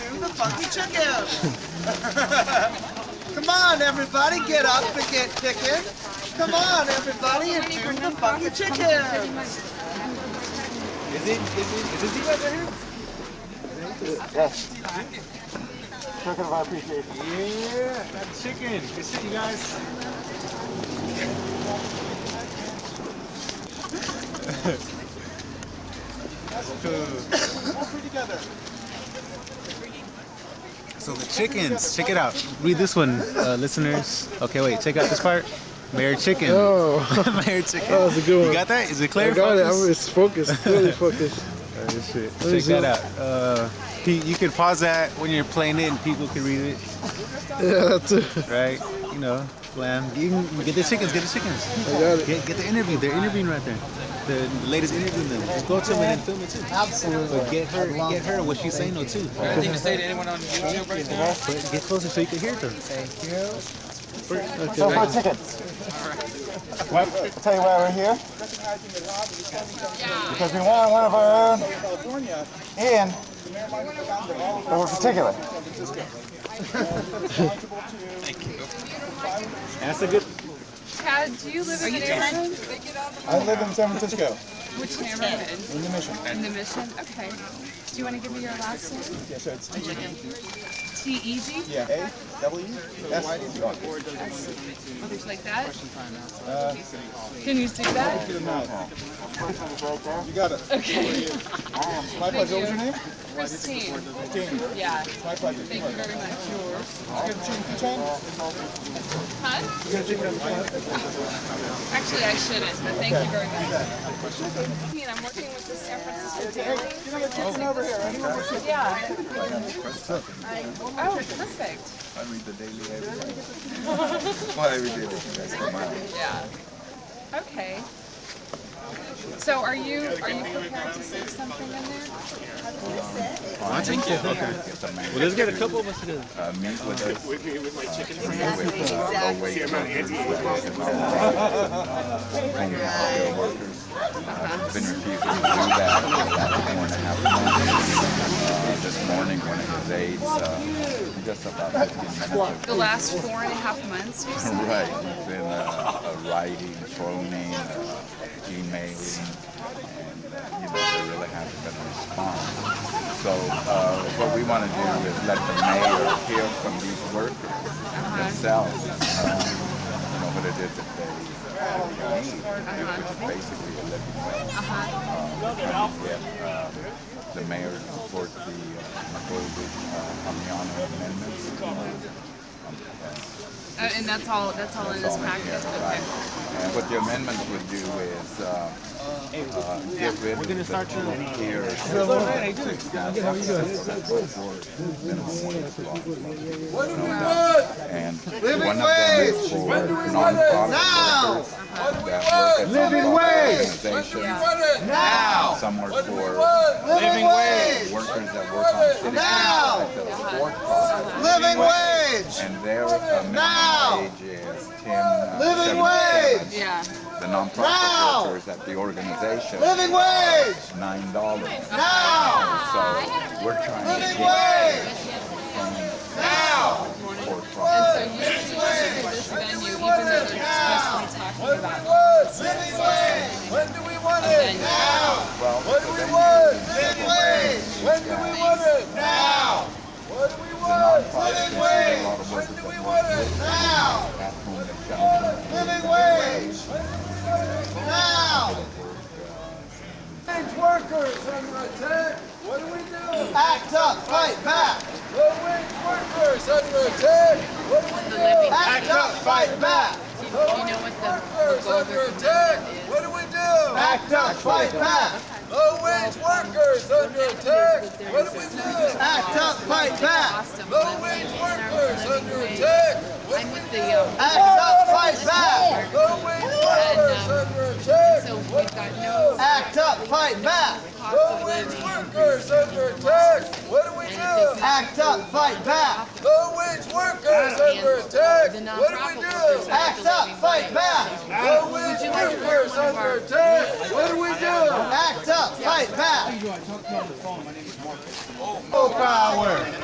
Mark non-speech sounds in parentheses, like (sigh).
funky chicken. (laughs) Come on, everybody, get up and get chicken. Come on, everybody, and do the funky chicken. Is it, is it, is it you guys right here? Token of our appreciation. Yeah, that chicken. Good shit, you guys. That's cool. So the chickens, check it out. Read this one, uh, listeners. Okay, wait, check out this part. Mayor Chicken. Oh, (laughs) Mayor Chicken. That was a good You one. got that? Is it I clear? got it. Focus? I'm it's focused, clearly focused. Oh, this shit. Let me Check see. that out. Uh, Pete, you can pause that when you're playing it and people can read it. Yeah, that's it. right? You know, glam. You can get the chickens, get the chickens. I got it. Get, get the interview. They're interviewing right there. The latest interviewing them. Just go to them and then film it too. Absolutely. But get her, get her what she's saying though too. Anything to say to anyone on YouTube right now? But get closer so you can hear them. So for tickets. Why- I'll tell you why we're here. Because we want one of our own in over particular. That's a good. Chad, Uh, do you live in the neighborhood? I live in San Francisco, Which neighborhood? in the mission. In the Mission? Okay. Do you want to give me your last name? E Yeah, so it's T-E-Z? yeah, A W S U R. Something Oh, like that? Can you see that? You got it. Okay. My pleasure. What was your name? Christine. Dean. Yeah. My pleasure. Thank you very much. You got a chicken keychain? Huh? You got a chicken keychain? Actually, I shouldn't, but thank you very much. Christine, I'm working with the San Francisco Daily. You got a chicken over here. Anyone with chicken? Yeah. Oh, perfect. I read the daily every day. Well, every day, but you guys come out. Yeah. Okay. So are you, are you prepared to say something in there? Well, let's get a couple of us together. Uh, meet with us. uh, With uh, me, with my chicken friends. Exactly, exactly. uh, workers. Uh, Been refused to do that for about four and a half months. Uh, This morning, one of his aides, uh, just about fifteen minutes ago, The last four and a half months or so? Right, he's been uh, uh, writing, phoning, uh, emailing, and uh, you know there really hasn't been a response. So uh, what we want to do is let the mayor hear from these workers Uh-huh. themselves, uh, you know what it is that they uh, need, which is basically a living wage. Uh-huh. Uh, trying to get uh, the mayor to support the uh, McGoldrick uh, Amiano amendments. Uh, and that's all, that's all in this package? Right. Okay. And what the amendment would do is, uh, uh, get rid of the two-tier. And one of them is for Now! nonprofit workers. that work at Living wage! organizations. Now! Some work for Living wage! workers that work on city Now! contracts that are for profit. Living wage! And their uh, Now! minimum wage is ten. uh, Living 77. wage! Yeah. The nonprofit Now! workers at the organization. Living wage! Nine dollars. Ah, Now! So we're trying to Living get wage! Now! for So profit. you just at this venue, even though they're explicitly talking about Living wage! When do we want the venue. Now! Well, What do we want? Living wage! When do we want it? Now! What do we the want? nonprofit Living is a wage! lot of When do workers we that want work it? Now! at home and shelter. Living wage! Now! workers under attack! What do we do? Act up, fight back! Low wage workers under attack! What do we do? The living- Act up, fight back! Do you know what the, the goal of under their attack! commitment What is? do we do? Act up, fight back! Low wage workers under attack! What do we do? Act up, fight back! Cost of Low living wage and our workers living under wage. attack! What I do we mean, do? the, um, Act up, fight back! Low wage workers um, under attack! so we've got no Act up, fight back! cost Low of wage living. workers under attack. What do we do? Act up, fight back. Low wage workers under attack. The What do we nonprofit workers do? have the living wage. back. Low wage workers under attack. What do we do? Act up, fight back. Oh, power.